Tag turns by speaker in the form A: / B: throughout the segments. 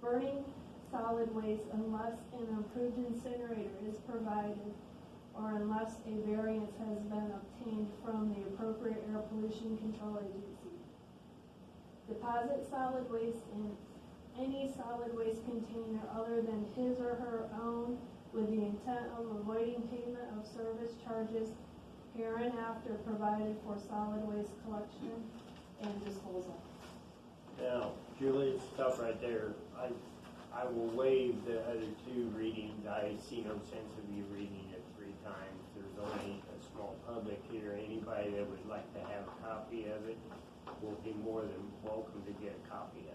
A: burning solid waste unless an approved incinerator is provided or unless a variance has been obtained from the appropriate air pollution control agency. Deposit solid waste in any solid waste container other than his or her own with the intent of avoiding payment of service charges hereinafter provided for solid waste collection and disposal.
B: Now, Julie, it's tough right there. I, I will waive the other two readings. I see no sense of you reading it three times. There's only a small public here. Anybody that would like to have a copy of it will be more than welcome to get a copy of it.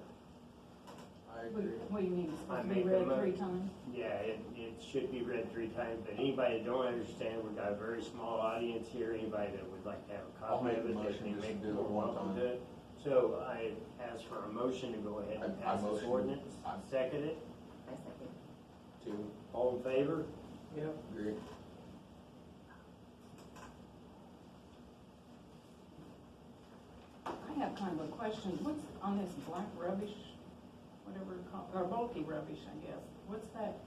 C: I
D: What
C: agree.
D: what do you mean, it's
B: I
D: supposed to be
B: make a
D: read
B: mo-
D: three times?
B: Yeah, it, it should be read three times, but anybody that don't understand, we've got a very small audience here. Anybody that would like to have a
C: I'll
B: copy
C: make
B: of
C: a
B: it,
C: motion
B: they
C: just
B: make
C: to do it
B: more
C: one
B: welcome
C: time.
B: to it. So I ask for a motion to go ahead and
C: I- I
B: pass this
C: motion.
B: ordinance.
C: I-
B: Second it.
E: I second.
C: Two,
B: All in favor?
C: agree.
D: I have kind of a question, what's on this black rubbish, whatever, it's called, or bulky rubbish, I guess, what's that?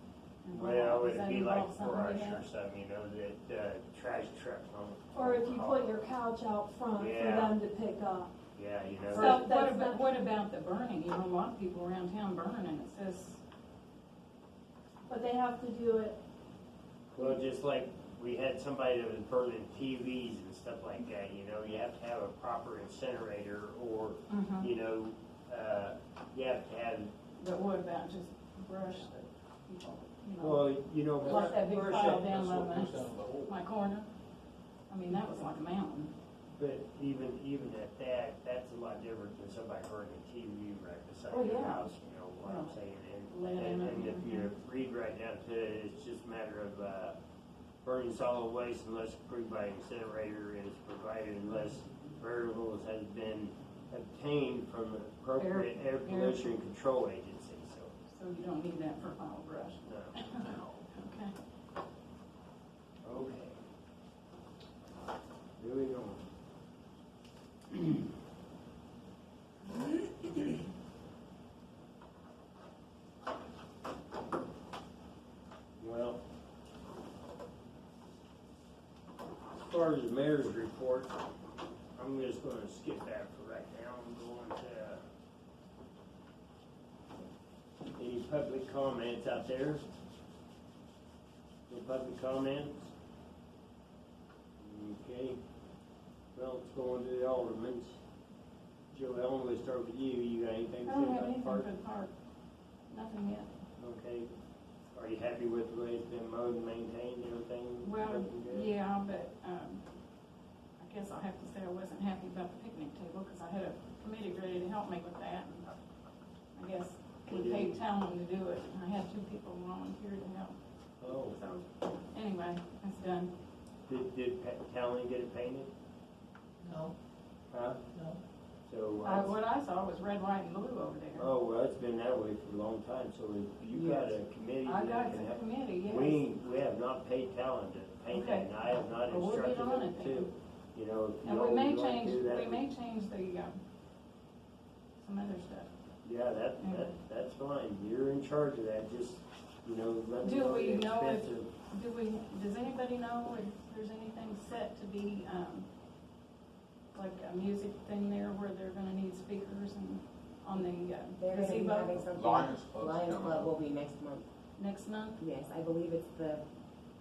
A: Mm-hmm.
D: involved?
B: Well,
D: Does
B: it'd
D: that
B: be like
D: involve something
B: brush
D: in
B: or
D: that?
B: something, you know, that, uh, trash truck, huh?
A: Or if you put your couch out front for
B: Yeah.
A: them to pick up.
B: Yeah, you know,
D: Or
A: So-
B: that-
D: what
A: that's
D: about,
A: not-
D: what about the burning, you know, a lot of people around town burning, and it says,
A: But they have to do it,
B: well, just like we had somebody that was burning TVs and stuff like that, you know, you have to have a proper incinerator or,
A: Uh-huh. Mm-hmm.
D: Mhm.
B: you know, uh, you have to have,
D: but what about just brush that people, you know,
B: well, you know.
D: like that big
B: brush
D: pile
B: it-
D: down
C: That's what
D: by
C: comes down
D: my,
C: to the hole.
D: my corner? I mean, that was like a mountain,
B: But even, even at that, that's a lot different than somebody burning a TV right
D: Oh,
B: beside your
D: yeah.
B: house, you know what I'm saying?
D: Laying
B: And, and,
D: in Mhm.
B: and
D: it.
B: if you read right down to it, it's just a matter of, uh, burning solid waste unless approved by incinerator and is provided unless variables has been obtained from the appropriate air pollution control agency, so,
D: so you don't need that for pile brush,
B: no.
D: okay?
B: Okay. Moving on. Well, as far as the mayor's report, I'm just gonna skip that for right now. I'm going to any public comments out there? No public comments? Okay. Well, it's going to the aldermans. Joe, I'm gonna start with you. You got anything
D: I
B: to say
D: don't have
B: about the
D: anything for
B: park?
D: the park, nothing yet.
B: Okay. Are you happy with the way it's been mowed and maintained and everything?
D: Well,
B: Looking good?
D: yeah, but, um, I guess I have to say I wasn't happy about the picnic table, cause I had a committee ready to help me with that, and I guess we paid Talon to do it, and I had two people volunteer to help,
B: Oh,
D: so, anyway, that's done.
B: did, did Pa- Talon get it painted?
F: No,
B: Huh?
F: no.
B: So,
D: I,
B: uh,
D: what I saw was red, white, and blue over there.
B: oh, well, it's been that way for a long time, so if you got a committee
D: I
B: that
D: got
B: can
D: the
B: help.
D: committee, yes,
B: We, we have not paid Talon to paint it,
D: Okay.
B: and I have not
D: Well, we'll get
B: instructed
D: on
B: them
D: it then.
B: to. You know, if
D: and
B: you
D: we may
B: always want to
D: change,
B: do that.
D: we may change the, um, some other stuff.
B: Yeah, that, that, that's fine, you're in charge of that, just, you know, let me
D: Do
B: know
D: we
B: the
D: know if-
B: expense of,
D: Do we, does anybody know if there's anything set to be, um, like a music thing there where they're gonna need speakers and on the uh,
E: They're gonna be having
D: gazebo
E: something.
C: Lions Club's
E: Lions
C: coming
E: Club
C: up.
E: will be next month.
D: next month?
E: Yes, I believe it's the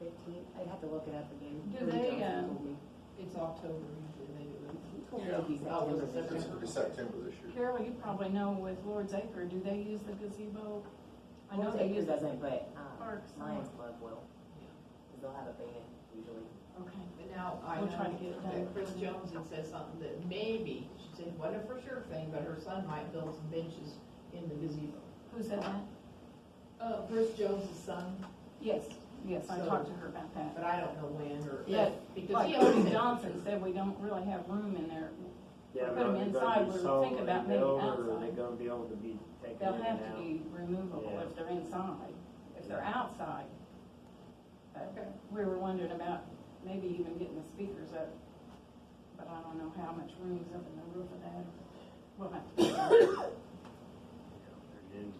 E: fifteenth. I'd have to look it up again.
D: Do
E: Bree
D: they,
E: Johnson
D: uh,
E: told me.
F: It's October usually they do it.
E: Told me
C: Yeah.
E: it'd be
F: Oh, was it
E: September.
C: It's gonna be September this year.
D: Carol, you probably know with Lord's Acre, do they use the gazebo? I know
E: Well,
D: they
E: Taker
D: use it.
E: doesn't, but, um,
D: Parks.
E: Lions Club will. they they'll have a band usually.
D: Okay,
F: But now I
D: We'll try to
F: know
D: get it done.
F: that Chris Jones had said something that maybe, she said, what a for sure thing, but her son might build some benches in the gazebo.
D: who said that?
F: Uh,
D: Oh.
F: Chris Jones' son,
D: Yes, yes, I
F: So-
D: talked to her about that.
F: but I don't know when or
D: Yeah,
F: if, because he
D: Like
F: always
D: Tony
F: said.
D: Johnson said, we don't really have room in there.
B: yeah,
D: Put
B: but are
D: them
B: they
D: inside,
B: gonna
D: we
B: be
D: were
B: solid
D: thinking about
B: and
D: maybe
B: over, or Are they
D: outside.
B: gonna be able to be taken in
D: They'll
B: and out?
D: have to be removable
B: Yeah.
D: if they're inside, if they're
B: Yeah.
D: outside. But
F: Okay.
D: we were wondering about maybe even getting the speakers up, but I don't know how much room is up in the roof of that. We'll have to.
B: And then